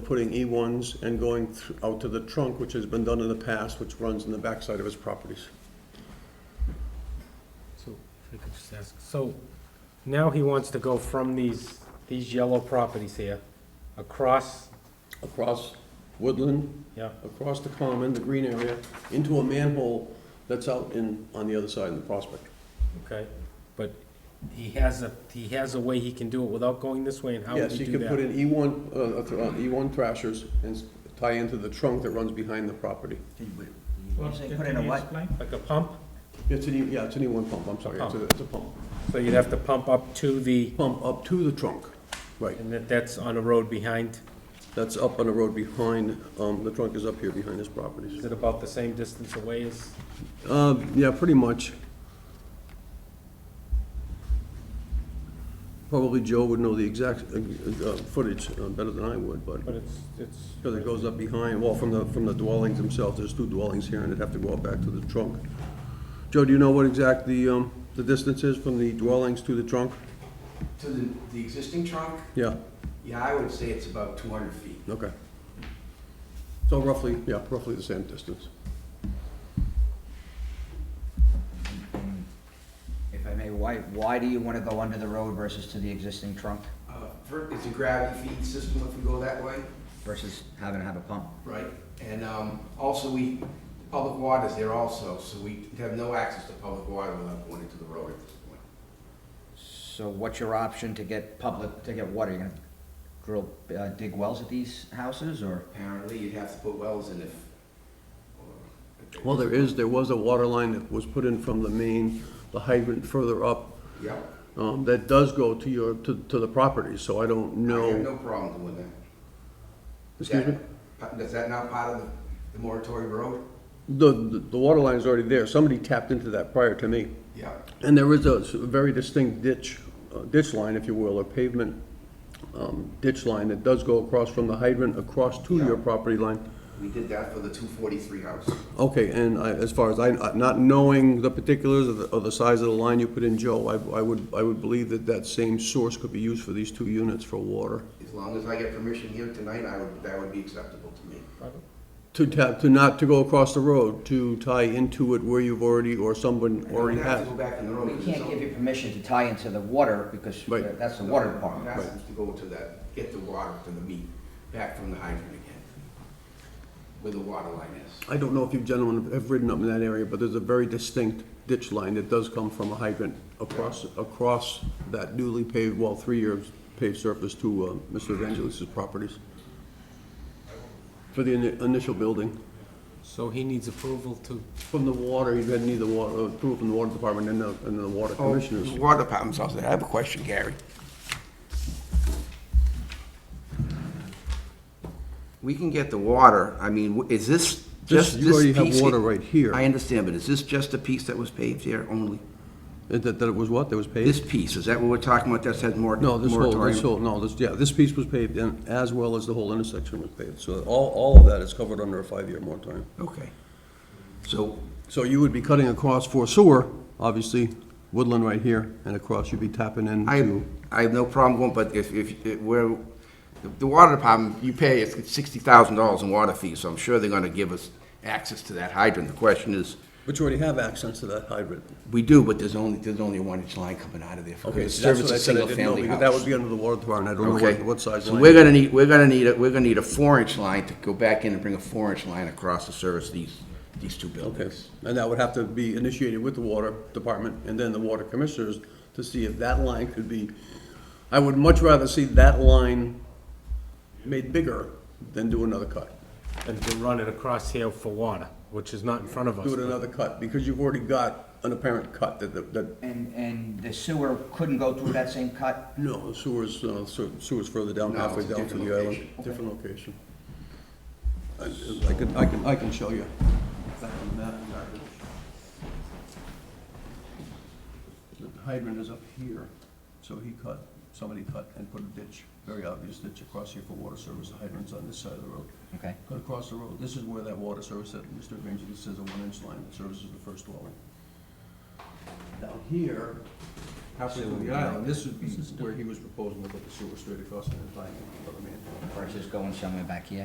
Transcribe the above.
putting E1s and going thr- out to the trunk, which has been done in the past, which runs in the backside of his properties. So, if I could just ask, so now he wants to go from these, these yellow properties here, across, Across Woodland, yeah, across the common, the green area, into a manhole that's out in, on the other side in the prospect. okay, but he has a, he has a way he can do it without going this way, and how would Yes, you he do can put that? in E1, uh, uh, th- uh, E1 thrashers and s- tie into the trunk that runs behind the property. Did we- Well, You say can- put in a can you what? explain? Like a pump, It's an, E- yeah, it's an E1 pump, I'm sorry, Oh. it's a, it's a pump. so you'd have to pump up to the, Pump up to the trunk, right. and that, that's on a road behind, That's up on the road behind, um, the trunk is up here behind his properties. is it about the same distance away as? Uh, yeah, pretty much. Probably Joe would know the exact, uh, uh, footage uh, better than I would, but, But it's, it's. because it goes up behind, well, from the, from the dwellings themselves, there's two dwellings here, and it'd have to go up back to the trunk. Joe, do you know what exact the, um, the distance is from the dwellings to the trunk? To the, the existing trunk, Yeah, yeah, I would say it's about two hundred feet. okay. So roughly, yeah, roughly the same distance. And If I may, why, why do you want to go under the road versus to the existing trunk Uh, fir- it's a gravity feed system if we go that way. versus having to have a pump? Right. And, um, also we, public water's there also, so we have no access to public water without going into the road at this point. So what's your option to get public, to get water? You're gonna drill, uh, dig wells at these houses or? Apparently you'd have to put wells in if. Well, there is, there was a water line that was put in from the main, the hydrant further up, Yep. um, that does go to your, to, to the property, so I don't I have know. no problem doing that. Is Excuse me? that- Is that not part of the, the moratorium road? The, the the water line is already there, somebody tapped into that prior to me. Yeah. And there is a s- very distinct ditch, uh, ditch line, if you will, or pavement, um, ditch line that does go across from the hydrant across to your Yeah. property line. We did that for the two forty-three house. Okay, and I, as far as I, not knowing the particulars of the, of the size of the line you put in, Joe, I, I would, I would believe that that same source could be used for these two units for water. As long as I get permission here tonight, I would, that would be acceptable to me. To tap, to not to go across the road, to tie into it where you've already, or someone I already don't have has. to go back in the road. We because it's can't give you permission to tie into the water because Right. that's the water department. It has to go to that, get the water from the meat, back from the hydrant again, where the water line is. I don't know if you gentlemen have ridden up in that area, but there's a very distinct ditch line that does come from a hydrant across, across that newly paved, well, three years paved surface to, uh, Mr. Evangelis's properties. For the ini- initial building. So he needs approval to, From the water, you've had neither water, approval from the water department and the, and the water Oh, Oh. commissioners. Water department's also, I have a question, Gary. We can get the water, I mean, w- is this This, just you already this have piece? water right I here. understand, but is this just the piece that was paved here only? That, that it was what, that was This paved? piece, is that what we're talking about, that said mor- No, this whole, this moratorium? whole, no, this, yeah, this piece was paved and as well as the whole intersection was paved. So all, all of that is covered under a five-year moratorium. Okay. So, So you would be cutting across for sewer, obviously, woodland right here, and across you'd be tapping I, into. I have no problem going, but if, if, if we're, the- the water department, you pay, it's sixty thousand dollars in water fees, so I'm sure they're gonna give us access to that hydrant. The question is, But you already have access to that hydrant. we do, but there's only, there's only a one-inch line coming out of there. Okay, It so that's serves what I a said, I didn't know, single-family because that house. would be under the water department, I don't know Okay, what, what size so we're line. gonna need, we're gonna need, a we're gonna need a four-inch line to go back in and bring a four-inch line across to service these, these two Okay, buildings. and that would have to be initiated with the water department and then the water commissioners to see if that line could be, I would much rather see that line made bigger than do another cut. and to run it across here for water, which is not in front of us. Do it another cut, because you've already got an apparent cut that, that- that, And, and the sewer couldn't go through that same cut? no, the sewer's, uh, sewer- sewer's further down, No, halfway it's a down to different the island. location. Different location. I I can, I can, I can show you. The hydrant is up here, so he cut, somebody cut and put a ditch, very obvious ditch across here for water service. The hydrant's on this side of the road. Okay. Cut across the road. This is where that water service, that Mr. Evangelist says a one-inch line that services the first dwelling. Down here, halfway through the island, this would be where he was proposing to put the sewer straight across and then tying it to the manhole. versus going somewhere back here?